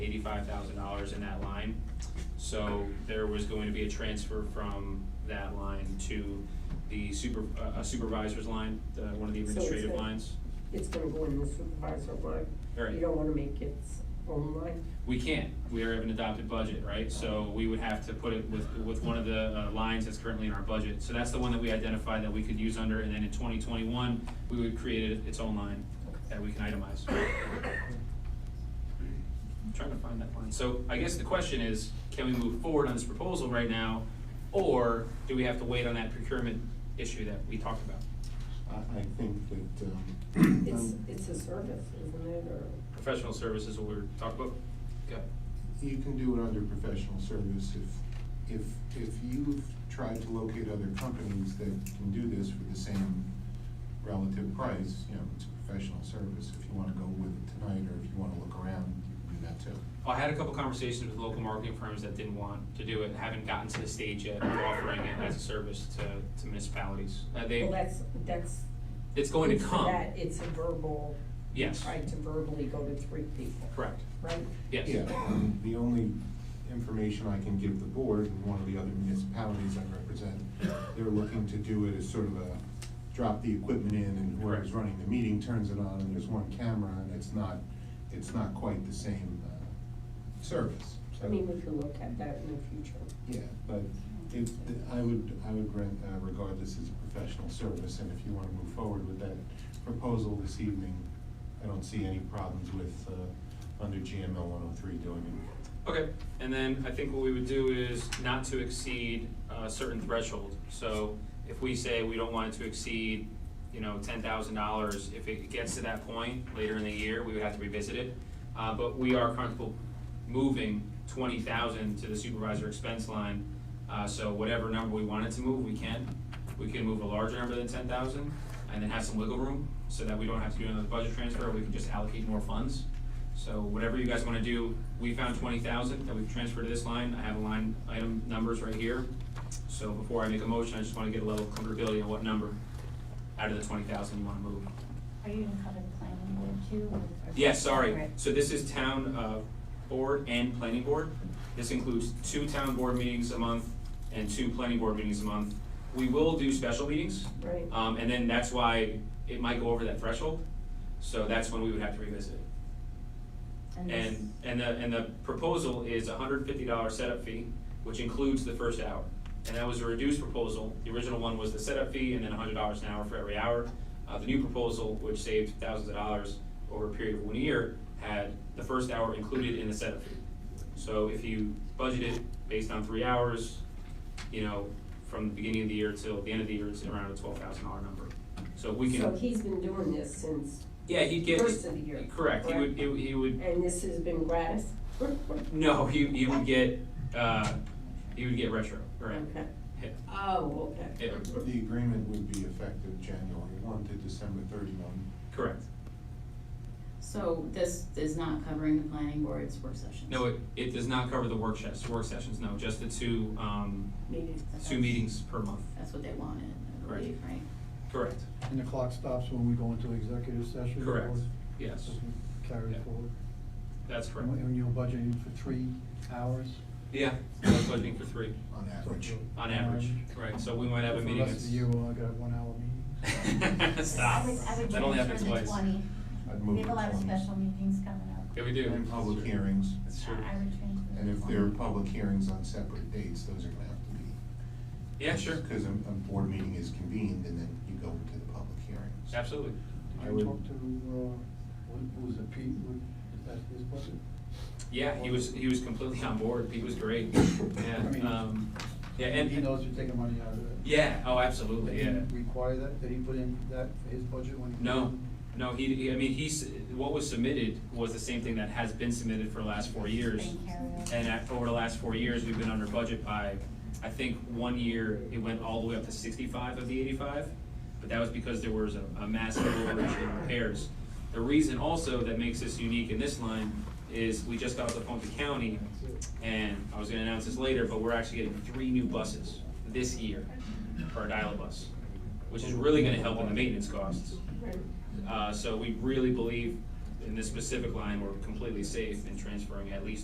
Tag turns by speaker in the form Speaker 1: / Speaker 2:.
Speaker 1: eighty-five thousand dollars in that line. So there was going to be a transfer from that line to the super, uh, a supervisor's line, the, one of the
Speaker 2: So it's
Speaker 1: administrative
Speaker 2: gonna-
Speaker 1: lines.
Speaker 2: It's gonna go in the supervisor line.
Speaker 1: Right.
Speaker 2: You don't wanna make its own line.
Speaker 1: We can't, we have an adopted budget, right? So we would have to put it with, with one of the uh, lines that's currently in our budget. So that's the one that we identified that we could use under, and then in twenty twenty-one, we would create it- its own line that we can itemize. I'm trying to find that line. So I guess the question is, can we move forward on this proposal right now? Or do we have to wait on that procurement issue that we talked about?
Speaker 3: I, I think that, um,
Speaker 2: It's,
Speaker 3: um,
Speaker 2: it's a service, isn't it, or?
Speaker 1: Professional services, what we were talking about? Okay.
Speaker 3: you can do it under professional service if, if, if you've tried to locate other companies that can do this for the same relative price, you know, it's a professional service. If you wanna go with it tonight, or if you wanna look around, you can do that too.
Speaker 1: I had a couple conversations with local marketing firms that didn't want to do it, haven't gotten to the stage yet of offering it as a service to, to municipalities. Uh, they,
Speaker 2: Well, that's, that's.
Speaker 1: it's going to
Speaker 2: for
Speaker 1: come.
Speaker 2: that, It's a verbal,
Speaker 1: Yes,
Speaker 2: tried to verbally go to three people.
Speaker 1: correct,
Speaker 2: Right?
Speaker 1: yes.
Speaker 3: Yeah, um, the only information I can give the board and one of the other municipalities I represent, they're looking to do it as sort of a, drop the equipment in and whoever's
Speaker 1: Correct.
Speaker 3: running the meeting turns it on and there's one camera and it's not, it's not quite the same, uh, service, so.
Speaker 2: I mean, we can look at that in the future.
Speaker 3: Yeah, but it, I would, I would rent, uh, regard this as a professional service, and if you wanna move forward with that proposal this evening, I don't see any problems with, uh, under GML one oh three doing it.
Speaker 1: Okay, and then I think what we would do is not to exceed a certain threshold. So if we say we don't want it to exceed, you know, ten thousand dollars, if it gets to that point later in the year, we would have to revisit it. Uh, but we are comfortable moving twenty thousand to the supervisor expense line. Uh, so whatever number we wanted to move, we can. We can move a larger number than ten thousand and then have some wiggle room so that we don't have to do another budget transfer, we can just allocate more funds. So whatever you guys wanna do, we found twenty thousand that we've transferred to this line, I have a line item numbers right here. So before I make a motion, I just wanna get a level of comfortability on what number out of the twenty thousand you wanna move.
Speaker 4: Are you gonna cover the planning board too? or-
Speaker 1: Yeah, sorry,
Speaker 4: Right.
Speaker 1: so this is town, uh, board and planning board. This includes two town board meetings a month and two planning board meetings a month. We will do special meetings,
Speaker 2: Right.
Speaker 1: um, and then that's why it might go over that threshold, so that's when we would have to revisit it.
Speaker 4: this-
Speaker 1: And, and the, and the proposal is a hundred and fifty dollar setup fee, which includes the first hour. And that was a reduced proposal, the original one was the setup fee and then hundred dollars an hour for every hour. Uh, the new proposal, which saved thousands of dollars over a period of one year, had the first hour included in the setup fee. So if you budget it based on three hours, you know, from the beginning of the year till the end of the year, it's around a twelve thousand dollar number. So we
Speaker 2: So
Speaker 1: can,
Speaker 2: he's been doing this since,
Speaker 1: yeah, he'd get,
Speaker 2: First of the year,
Speaker 1: correct, he would, he would- he would
Speaker 2: and this has been gratis?
Speaker 1: No, you you would get uh, you would get retro, right?
Speaker 2: Okay.
Speaker 1: Yeah.
Speaker 2: Oh, okay.
Speaker 1: Yeah,
Speaker 3: The agreement would be effective January one to December thirty-one.
Speaker 1: correct.
Speaker 4: So this is not covering the planning board's work sessions?
Speaker 1: No, it, it does not cover the work sessions. Work sessions, no, just the two um,
Speaker 2: Meeting.
Speaker 1: two meetings per month.
Speaker 4: That's what they wanted, I
Speaker 1: Correct.
Speaker 4: believe, right?
Speaker 1: Correct.
Speaker 5: And the clock stops when we go into executive session? or
Speaker 1: Correct. Yes,
Speaker 5: just Carry
Speaker 1: Yeah.
Speaker 5: it forward?
Speaker 1: that's correct.
Speaker 5: And we- And you're budgeting for three hours?
Speaker 1: Yeah, I was budgeting for three
Speaker 3: On average.
Speaker 1: on average. Right. So we might have a
Speaker 5: For
Speaker 1: meeting.
Speaker 5: The rest of the year, we'll got one hour meetings.
Speaker 1: that's- Stop.
Speaker 4: I would, I would
Speaker 1: That only
Speaker 4: transfer
Speaker 1: happens
Speaker 4: the
Speaker 1: twice.
Speaker 4: twenty.
Speaker 3: I'd
Speaker 4: We
Speaker 3: move
Speaker 4: have a lot of
Speaker 3: to 20.
Speaker 4: special meetings coming up.
Speaker 1: Yeah, we do.
Speaker 3: And public hearings,
Speaker 1: That's true.
Speaker 4: I would transfer.
Speaker 3: and
Speaker 4: the
Speaker 3: if
Speaker 4: 20.
Speaker 3: there are public hearings on separate dates, those are gonna have to be.
Speaker 1: Yeah, sure.
Speaker 3: Cause a, a board meeting is convened and then you go into the public hearings.
Speaker 1: Absolutely.
Speaker 3: I
Speaker 5: Did you
Speaker 3: would-
Speaker 5: talk to, uh, what what was it, Pete, What- is that his budget?
Speaker 1: Yeah, he was he was completely on board. He was great. Yeah.
Speaker 5: I mean,
Speaker 1: Um, yeah, and
Speaker 5: He knows you're taking money out of it.
Speaker 1: Yeah. Oh,
Speaker 5: Did
Speaker 1: absolutely.
Speaker 5: he
Speaker 1: Yeah.
Speaker 5: require that, did he put in that for his budget when? he-
Speaker 1: No, no, he, he- I mean, he's, what was submitted was the same thing that has been submitted for the last four years.
Speaker 4: Been carried
Speaker 1: And at, over the last four years, we've been under budget by, I think, one year, it went all the way up to sixty-five of the eighty-five. But that was because there was a, a massive overage in repairs. The reason also that makes this unique in this line is we just got the Funky County, and I was gonna announce this later, but we're actually getting three new buses this year for our dial-a-bus, which is really gonna help in the maintenance costs. Uh, so we really believe in this specific line, we're completely safe in transferring at least